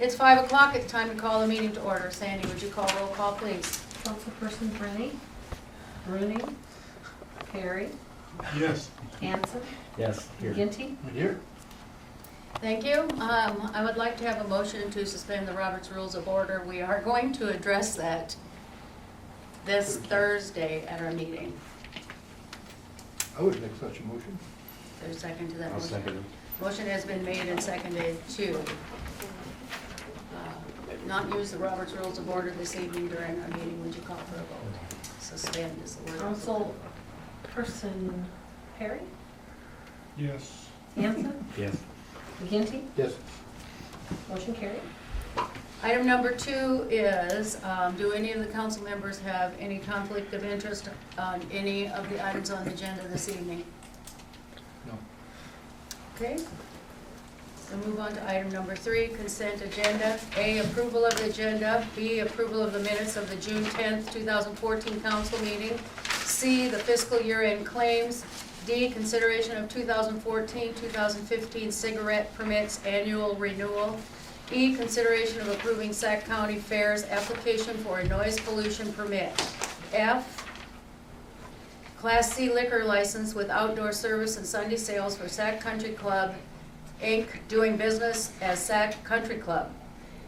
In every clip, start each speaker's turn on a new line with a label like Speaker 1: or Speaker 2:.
Speaker 1: It's five o'clock, it's time to call the meeting to order. Sandy, would you call roll call, please?
Speaker 2: Councilperson Bruni, Bruni, Perry,
Speaker 3: Yes.
Speaker 2: Hanson,
Speaker 4: Yes, here.
Speaker 2: McGinty.
Speaker 3: Here.
Speaker 1: Thank you. Um, I would like to have a motion to suspend the Roberts Rules of Order. We are going to address that this Thursday at our meeting.
Speaker 3: I would make such a motion.
Speaker 1: There's a second to that
Speaker 4: I'll
Speaker 1: motion?
Speaker 4: second it.
Speaker 1: Motion has been made and seconded to uh, not use the Roberts Rules of Order this evening during our meeting. Would you call for a vote? Suspend is the word.
Speaker 2: Councilperson Perry,
Speaker 3: Yes.
Speaker 2: Hanson,
Speaker 4: Yes.
Speaker 2: McGinty,
Speaker 3: Yes.
Speaker 2: motion carried.
Speaker 1: Item number two is, um, do any of the council members have any conflict of interest on any of the items on the agenda this evening?
Speaker 3: No.
Speaker 1: Okay? So move on to item number three, consent agenda. A, approval of the agenda. B, approval of the minutes of the June 10th, 2014 council meeting. C, the fiscal year-end claims. D, consideration of 2014, 2015 cigarette permits annual renewal. E, consideration of approving Sac County Fair's application for a noise pollution permit. F, Class C liquor license with outdoor service and Sunday sales for Sac Country Club, Inc., doing business as Sac Country Club.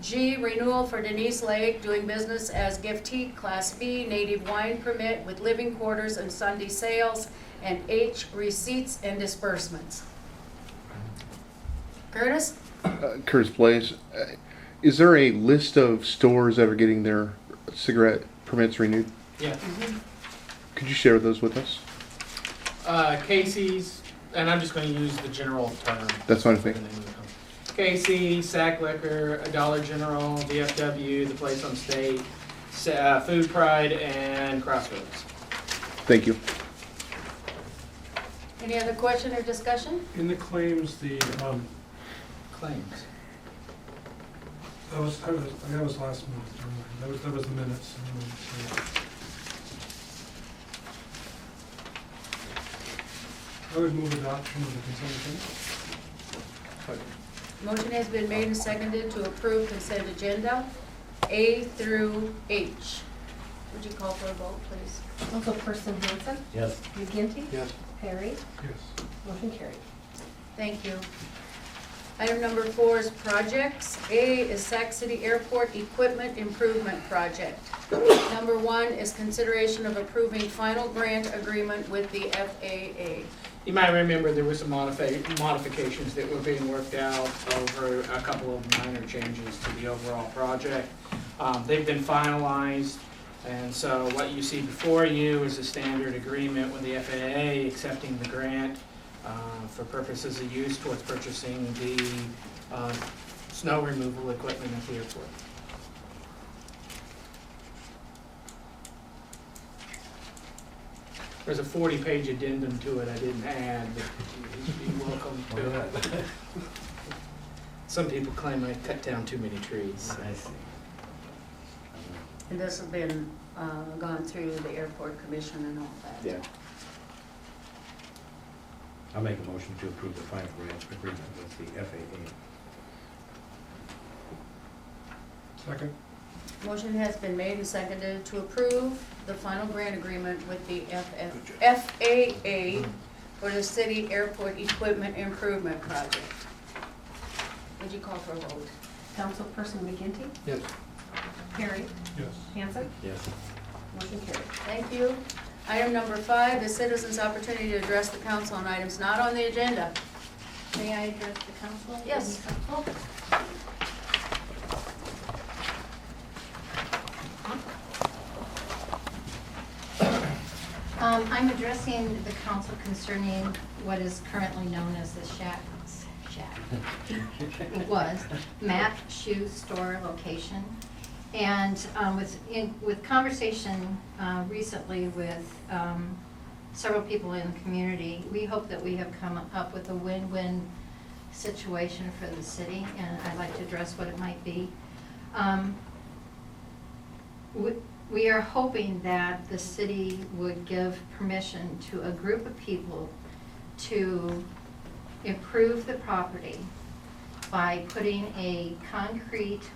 Speaker 1: G, renewal for Denise Lake, doing business as Giftee, Class B, native wine permit with living quarters and Sunday sales. And H, receipts and disbursements. Curtis?
Speaker 5: uh, Curtis Blaze, uh, is there a list of stores that are getting their cigarette permits renewed?
Speaker 6: Yeah,
Speaker 5: Could you share those with us?
Speaker 6: uh, Casey's, and I'm just gonna use the general term.
Speaker 5: That's fine with me.
Speaker 6: Casey, Sack Liquor, Dollar General, DFW, The Place on State, Sa- uh, Food Pride, and Crossroads.
Speaker 5: Thank you.
Speaker 1: Any other question or discussion?
Speaker 7: In the claims, the, um,
Speaker 6: Claims.
Speaker 7: that was, I was, that was last month, never mind. that was, that was the minutes. never mind, sorry. I would move adoption of the consent agenda.
Speaker 1: Motion has been made and seconded to approve consent agenda A through H. Would you call for a vote, please?
Speaker 2: Councilperson Hanson,
Speaker 4: Yes.
Speaker 2: McGinty,
Speaker 3: Yes.
Speaker 2: Perry,
Speaker 7: Yes.
Speaker 2: motion carried.
Speaker 1: Thank you. Item number four is projects. A is Sac City Airport Equipment Improvement Project. Number one is consideration of approving final grant agreement with the FAA.
Speaker 6: You might remember there were some modifi- modifications that were being worked out over a couple of minor changes to the overall project. Um, They've been finalized, and so what you see before you is a standard agreement with the FAA accepting the grant uh, for purposes of use towards purchasing the uh, snow removal equipment at the airport. There's a 40-page addendum to it I didn't add, but you're welcome to it. Some people claim I cut down too many trees.
Speaker 4: I see.
Speaker 1: And this has been uh, gone through the airport commission and all that.
Speaker 4: I'll make a motion to approve the final grant agreement with the FAA.
Speaker 7: Second?
Speaker 1: Motion has been made and seconded to approve the final grant agreement with the FF FAA for the city airport equipment improvement project. Would you call for a vote?
Speaker 2: Councilperson McGinty,
Speaker 3: Yes.
Speaker 2: Perry,
Speaker 7: Yes.
Speaker 2: Hanson,
Speaker 4: Yes.
Speaker 2: motion carried.
Speaker 1: Thank you. Item number five, the citizens' opportunity to address the council on items not on the agenda.
Speaker 8: May I address the council?
Speaker 1: Yes.
Speaker 8: Um, I'm addressing the council concerning what is currently known as the shack, shack. It was MAP Shoe Store location. And, um, with, in, with conversation, uh, recently with, um, several people in the community, we hope that we have come up with a win-win situation for the city, and I'd like to address what it might be. Um, we- We are hoping that the city would give permission to a group of people to improve the property by putting a concrete